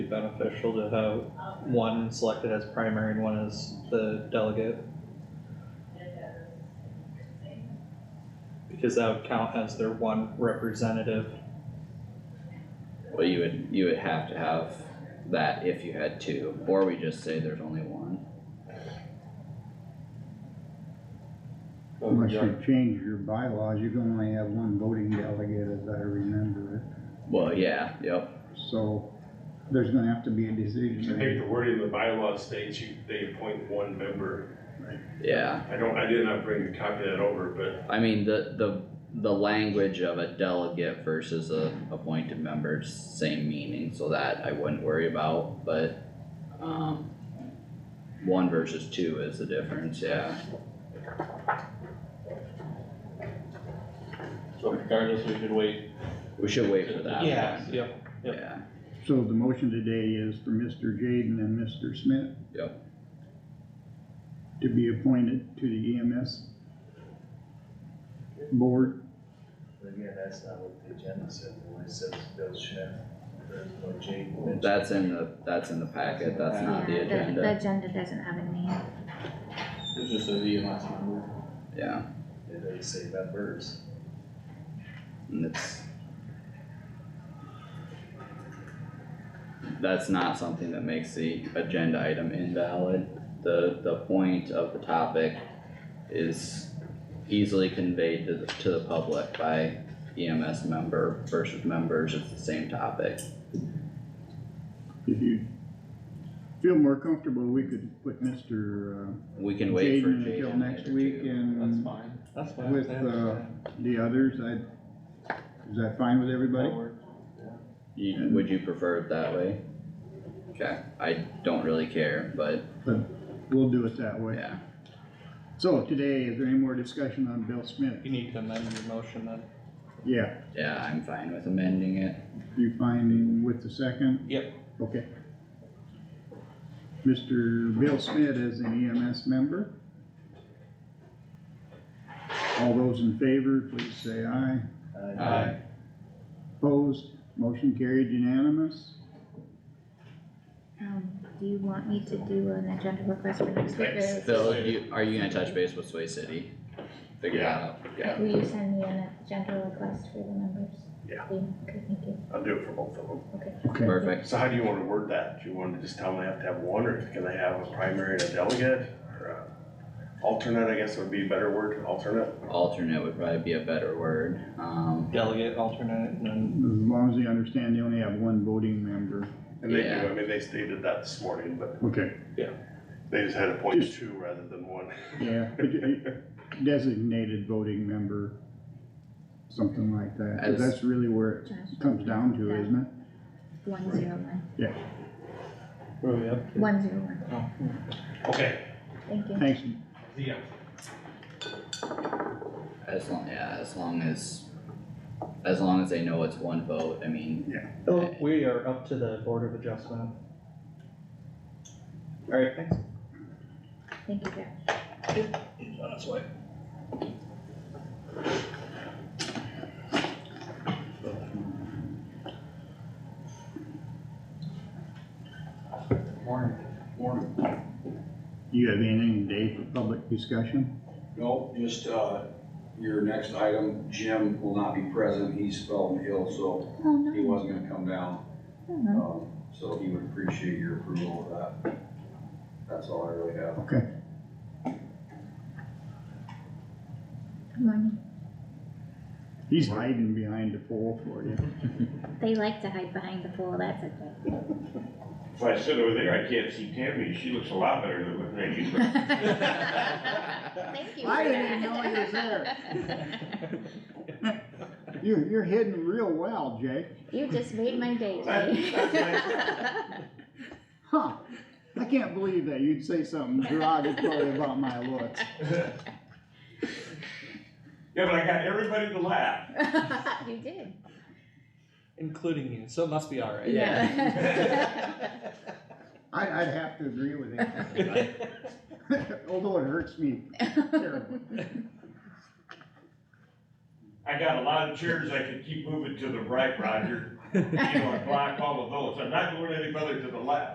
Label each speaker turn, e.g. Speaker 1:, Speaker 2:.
Speaker 1: beneficial to have one selected as primary and one as the delegate. Because that would count as their one representative.
Speaker 2: Well, you would, you would have to have that if you had two, or we just say there's only one.
Speaker 3: Unless you change your bylaws, you can only have one voting delegate, as I remember it.
Speaker 2: Well, yeah, yep,
Speaker 3: So there's gonna have to be a
Speaker 4: I think
Speaker 3: decision.
Speaker 4: the wording in the bylaw states you, they appoint one member.
Speaker 2: yeah.
Speaker 4: I don't, I did not bring a copy of that over,
Speaker 2: I mean, the, the, the language of a delegate versus a appointed member, same meaning, so that I wouldn't worry about, but, um, one versus two is the difference, yeah.
Speaker 5: So regardless, we should wait.
Speaker 2: We should wait for that.
Speaker 1: Yep, yep.
Speaker 2: Yeah,
Speaker 3: So the motion today is for Mr. Jaden and Mr. Smith.
Speaker 2: Yep.
Speaker 3: To be appointed to the E EMS board.
Speaker 6: But again, that's not what the agenda said, it only says Bill Schmidt, there's no Jane Lynch.
Speaker 2: that's in the, that's in the packet, that's not the
Speaker 7: Yeah, The
Speaker 2: agenda,
Speaker 7: agenda doesn't have a name.
Speaker 5: It's just a EMS number.
Speaker 2: yeah,
Speaker 6: It doesn't say members.
Speaker 2: and it's. That's not something that makes the agenda item invalid, the, the point of the topic is easily conveyed to the, to the public by EMS member versus members, it's the same topic.
Speaker 3: If you feel more comfortable, we could put Mr. uh,
Speaker 2: We can wait for
Speaker 3: Jaden until
Speaker 2: Jaden
Speaker 3: next
Speaker 2: later
Speaker 3: week
Speaker 2: too.
Speaker 5: That's
Speaker 3: and
Speaker 5: fine. That's
Speaker 3: fine. With, uh, the others. I, is that fine with everybody?
Speaker 2: You, would you prefer it that way? Okay, I don't really care, but
Speaker 3: We'll do it that way.
Speaker 2: yeah,
Speaker 3: So today, is there any more discussion on Bill Smith?
Speaker 1: You need to amend your motion then.
Speaker 3: Yeah,
Speaker 2: yeah, I'm fine with amending it.
Speaker 3: you find with the second?
Speaker 1: Yep.
Speaker 3: Okay. Mr. Bill Smith is an EMS member. All those in favor, please say aye.
Speaker 6: Uh,
Speaker 3: Opposed, motion carried unanimous.
Speaker 7: Um, do you want me to do an agenda request for next week? or
Speaker 2: Phil, do you, are you gonna touch base with Sway City? Figure that out, yeah,
Speaker 7: Will you send me an agenda request for the members?
Speaker 4: Yeah.
Speaker 7: Okay, thank you.
Speaker 4: but I'll do it for both of them.
Speaker 7: Okay.
Speaker 3: Okay.
Speaker 2: perfect.
Speaker 4: So how do you wanna word that? Do you wanna just tell them they have to have one, or can they have a primary and a delegate? or a Alternate, I guess would be a better word, alternate.
Speaker 2: Alternate would probably be a better word, um,
Speaker 1: Delegate, alternate, and then
Speaker 3: As long as they understand they only have one voting member.
Speaker 4: And they do,
Speaker 2: Yeah.
Speaker 4: I mean, they stated that this morning, but
Speaker 3: Okay,
Speaker 4: they just had to point two rather than one.
Speaker 3: yeah, but you- designated voting member, something like that. 'cause
Speaker 2: As-
Speaker 3: That's really where it
Speaker 7: Josh,
Speaker 3: comes down to, isn't it?
Speaker 7: one zero one,
Speaker 1: where are we up to?
Speaker 7: one zero one,
Speaker 1: Oh.
Speaker 4: Okay.
Speaker 7: thank you.
Speaker 3: Thanks,
Speaker 4: Yeah.
Speaker 2: as long, yeah, as long as, as long as they know it's one vote, I mean,
Speaker 1: Oh, we are up to the Board of Adjustment. Alright, thanks.
Speaker 7: Thank you, Jeff.
Speaker 1: He's on his way.
Speaker 5: Morning. Morning.
Speaker 3: you have anything today for public discussion?
Speaker 8: No, just, uh, your next item, Jim will not be present, he's fell ill, so
Speaker 7: Oh, no.
Speaker 8: he wasn't gonna come down.
Speaker 7: Oh, no.
Speaker 8: Um, so he would appreciate your approval of that. That's all I really have.
Speaker 7: Good morning.
Speaker 3: He's hiding behind the pole for you.
Speaker 7: They like to hide behind the pole, that's
Speaker 9: If I sit over there, I can't see Tammy, she looks a lot better than what they do.
Speaker 7: okay. Thank you for that.
Speaker 3: I didn't even know he was You're, you're hidden real well, Jake.
Speaker 7: You just made my day,
Speaker 4: That-
Speaker 7: Jay.
Speaker 3: Huh. I can't believe that you'd say something derogatory about my looks.
Speaker 9: Yeah, but I got everybody to laugh.
Speaker 7: You did.
Speaker 1: Including you, so it must be alright.
Speaker 7: Yeah.
Speaker 3: I, I'd have to agree with him. Although it hurts me terribly.
Speaker 9: I got a lot of chairs I could keep moving to the right, Roger.
Speaker 4: you know, I block all of those, I'm not going any further to the left.